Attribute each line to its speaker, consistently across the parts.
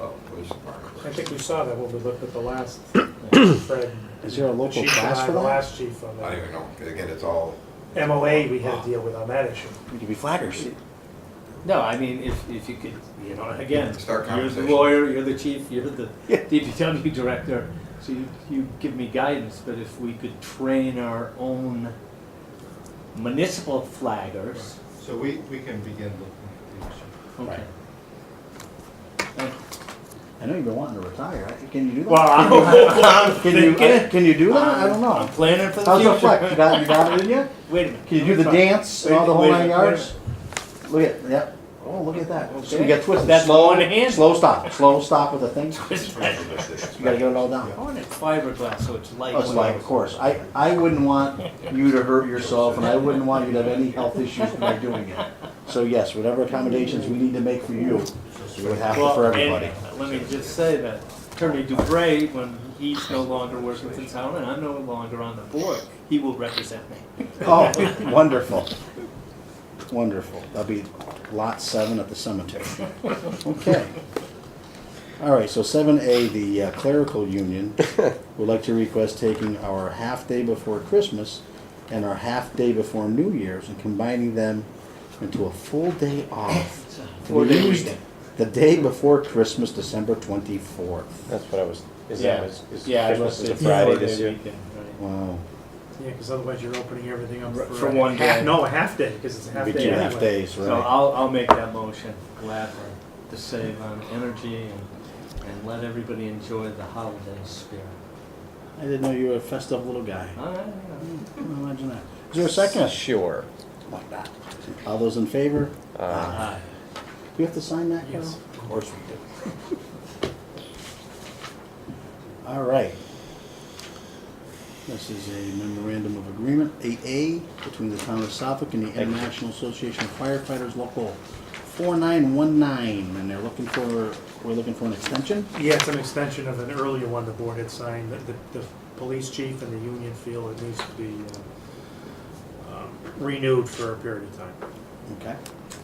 Speaker 1: uh, police department.
Speaker 2: I think we saw that when we looked at the last uh, Fred.
Speaker 3: Is there a local
Speaker 2: chief and
Speaker 3: class
Speaker 2: I,
Speaker 3: for
Speaker 2: The
Speaker 3: that?
Speaker 2: last chief on
Speaker 1: I don't
Speaker 2: that.
Speaker 1: even know, again, it's all,
Speaker 2: MOA, we had to deal with on that issue.
Speaker 3: We could be flatters.
Speaker 4: No, I mean, if, if you could, you know, again,
Speaker 1: Start
Speaker 4: you're the
Speaker 1: conversation.
Speaker 4: lawyer, you're the chief, you're the
Speaker 3: Yeah.
Speaker 4: DPW director, so you, you give me guidance, but if we could train our own municipal flaggers,
Speaker 5: So we, we can begin looking at the issue.
Speaker 4: okay. Thank you.
Speaker 3: I know you've been wanting to retire. Can you do that?
Speaker 4: Well, Uh, I'm, I'm
Speaker 3: Can you,
Speaker 4: thinking.
Speaker 3: can you do that? I don't
Speaker 4: I'm
Speaker 3: know.
Speaker 4: planning for the
Speaker 3: How's the flex? You
Speaker 4: future.
Speaker 3: got, you got it in you?
Speaker 4: Wait a minute.
Speaker 3: Can you do
Speaker 4: let me
Speaker 3: the
Speaker 4: try.
Speaker 3: dance and all the
Speaker 4: Wait,
Speaker 3: whole
Speaker 4: wait, wait.
Speaker 3: nine yards? Look at, yep. Oh, look at that. So you got twisted.
Speaker 4: That's
Speaker 3: Slow-
Speaker 4: one hand.
Speaker 3: Slow stop, slow stop with the thing.
Speaker 1: it's
Speaker 3: You gotta get it all down.
Speaker 4: I want it fiberglass, so it's light.
Speaker 3: Oh, It's like, of course, I, I wouldn't want you to hurt yourself, and I wouldn't want you to have any health issues by doing it. So yes, whatever accommodations we need to make for you, we would have to
Speaker 4: Well,
Speaker 3: for
Speaker 4: and uh,
Speaker 3: everybody.
Speaker 4: Let me just say that Attorney Dubray, when he's no longer working for the town and I'm no longer on the board, he will represent me.
Speaker 3: Oh, wonderful, wonderful. That'll be lot seven at the cemetery. Okay. All right, so seven A, the uh, clerical union would like to request taking our half-day before Christmas and our half-day before New Year's and combining them into a full day off.
Speaker 4: It's a
Speaker 3: to be
Speaker 4: Four-day
Speaker 3: used
Speaker 4: weekend.
Speaker 3: The day before Christmas, December twenty-fourth.
Speaker 6: That's what I was, is
Speaker 4: Yeah.
Speaker 6: that, is is
Speaker 4: Yeah, I was
Speaker 6: Christmas is a
Speaker 4: gonna say
Speaker 6: Friday
Speaker 4: four-day
Speaker 6: this year?
Speaker 4: weekend, right.
Speaker 3: Wow.
Speaker 2: Yeah, because otherwise you're opening everything up
Speaker 4: For
Speaker 2: for. a
Speaker 4: one
Speaker 2: half-
Speaker 4: day.
Speaker 2: No, a half day, because it's a half
Speaker 3: Be
Speaker 2: day.
Speaker 3: two half
Speaker 2: anyway.
Speaker 3: days,
Speaker 4: So
Speaker 3: right?
Speaker 4: I'll, I'll make that motion gladly to save on energy and, and let everybody enjoy the holiday spirit.
Speaker 3: I didn't know you were a festive little guy.
Speaker 4: All right,
Speaker 3: Imagine that. Is there a second?
Speaker 6: Sure.
Speaker 3: Like that. All those in favor?
Speaker 6: Uh,
Speaker 4: yeah.
Speaker 3: Do we have to sign that, Carol?
Speaker 2: Yes.
Speaker 3: Of course we do. All right. This is a memorandum of agreement, eight A, between the town of Suffolk and the International Association of Firefighters Local four nine one nine, and they're looking for, we're looking for an extension?
Speaker 2: Yeah, it's an extension of an earlier one the board had signed, that the, the police chief and the union feel it needs to be uh, um, renewed for a period of time.
Speaker 3: Okay.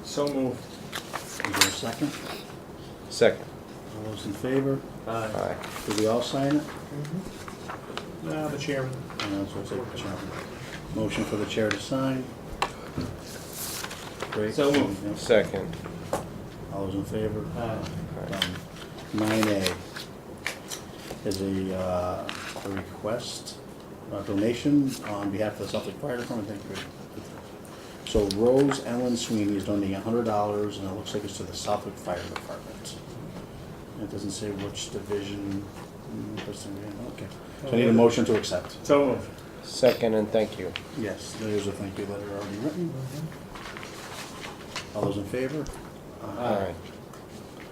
Speaker 4: So moved.
Speaker 3: Is there a second?
Speaker 6: Second.
Speaker 3: All those in favor?
Speaker 4: Aye.
Speaker 6: Aye.
Speaker 3: Did we all sign it?
Speaker 2: Uh, the chairman,
Speaker 3: And that's what's up, Chair. Motion for the chair to sign. Great.
Speaker 4: So moved.
Speaker 3: Yep.
Speaker 6: Second.
Speaker 3: All those in favor? Um,
Speaker 4: Aye.
Speaker 3: Nine A is a, uh, a request, a donation on behalf of the Suffolk Fire Department, thank you. So Rose Ellen Sweeney is donating a hundred dollars, and it looks like it's to the Suffolk Fire Department. And It doesn't say which division, mm, person, yeah, okay. So I
Speaker 4: Oh,
Speaker 3: need a motion to accept.
Speaker 4: So moved.
Speaker 6: Second and thank you.
Speaker 3: Yes, there's a thank you letter already written.
Speaker 2: Mm-hmm.
Speaker 3: All those in favor?
Speaker 6: Aye.
Speaker 4: Uh,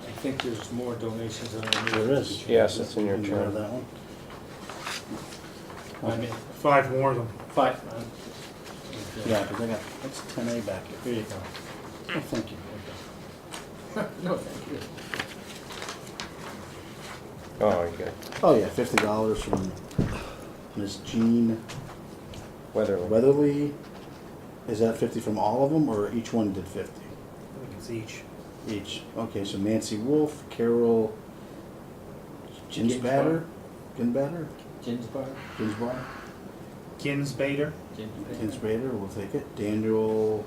Speaker 4: I think there's more donations than I need.
Speaker 3: There is.
Speaker 6: Yes, it's in your
Speaker 3: You can have
Speaker 6: turn.
Speaker 3: that one.
Speaker 4: I mean,
Speaker 2: five more of them.
Speaker 4: five. uh,
Speaker 3: Yeah, because I got, that's ten A back here.
Speaker 4: Here you go.
Speaker 3: Oh, Thank you.
Speaker 4: No, thank you.
Speaker 6: Oh, you got
Speaker 3: Oh, yeah, fifty dollars from Miss Jean
Speaker 6: Weatherly.
Speaker 3: Weatherly. Is that fifty from all of them, or each one did fifty?
Speaker 2: I think it's each.
Speaker 3: Each. Okay, so Nancy Wolf, Carol Ginsbatter, Ginbatter,
Speaker 4: Ginsburg?
Speaker 3: Ginsbar,
Speaker 2: Ginsbader,
Speaker 4: Ginsburg.
Speaker 3: Ginsbader, we'll take it. Daniel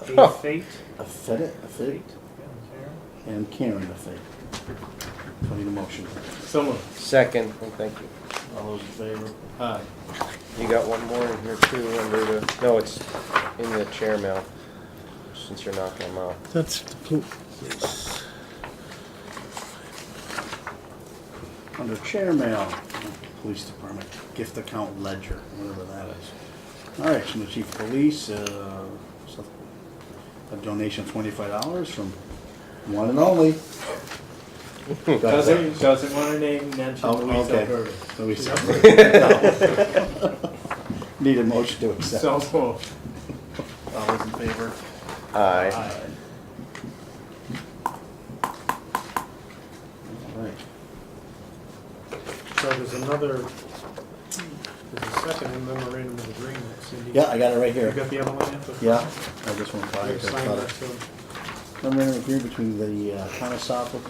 Speaker 2: A Fate.
Speaker 3: Affedit, Affedit, and Karen Affedit. So I need a motion.
Speaker 4: So moved.
Speaker 6: Second and thank you.
Speaker 3: All those in favor?
Speaker 4: Aye.
Speaker 6: You got one more in here too under the, no, it's in the chair mail, since you're knocking them out.
Speaker 7: That's the
Speaker 3: Under chair mail, police department, gift account ledger, whatever that is. All right, from the chief of police, uh, so- a donation of twenty-five dollars from one and only.
Speaker 4: Doesn't, doesn't want her name mentioned,
Speaker 3: Oh,
Speaker 4: Louise
Speaker 3: okay.
Speaker 4: Alberta.
Speaker 3: Luis Alberto. Need a motion to accept.
Speaker 4: So
Speaker 3: All
Speaker 4: moved.
Speaker 3: those in favor?
Speaker 6: Aye.
Speaker 4: Aye.
Speaker 3: All right.
Speaker 2: So there's another, there's a second memorandum of agreement, Cindy.
Speaker 3: Yeah, I got it right
Speaker 2: You
Speaker 3: here.
Speaker 2: got the other one yet? The-
Speaker 3: Yeah, I just went by
Speaker 2: You
Speaker 3: it. 'cause I
Speaker 2: signed
Speaker 3: thought it-
Speaker 2: that, so-
Speaker 3: memorandum of agreement between the uh, town of Suffolk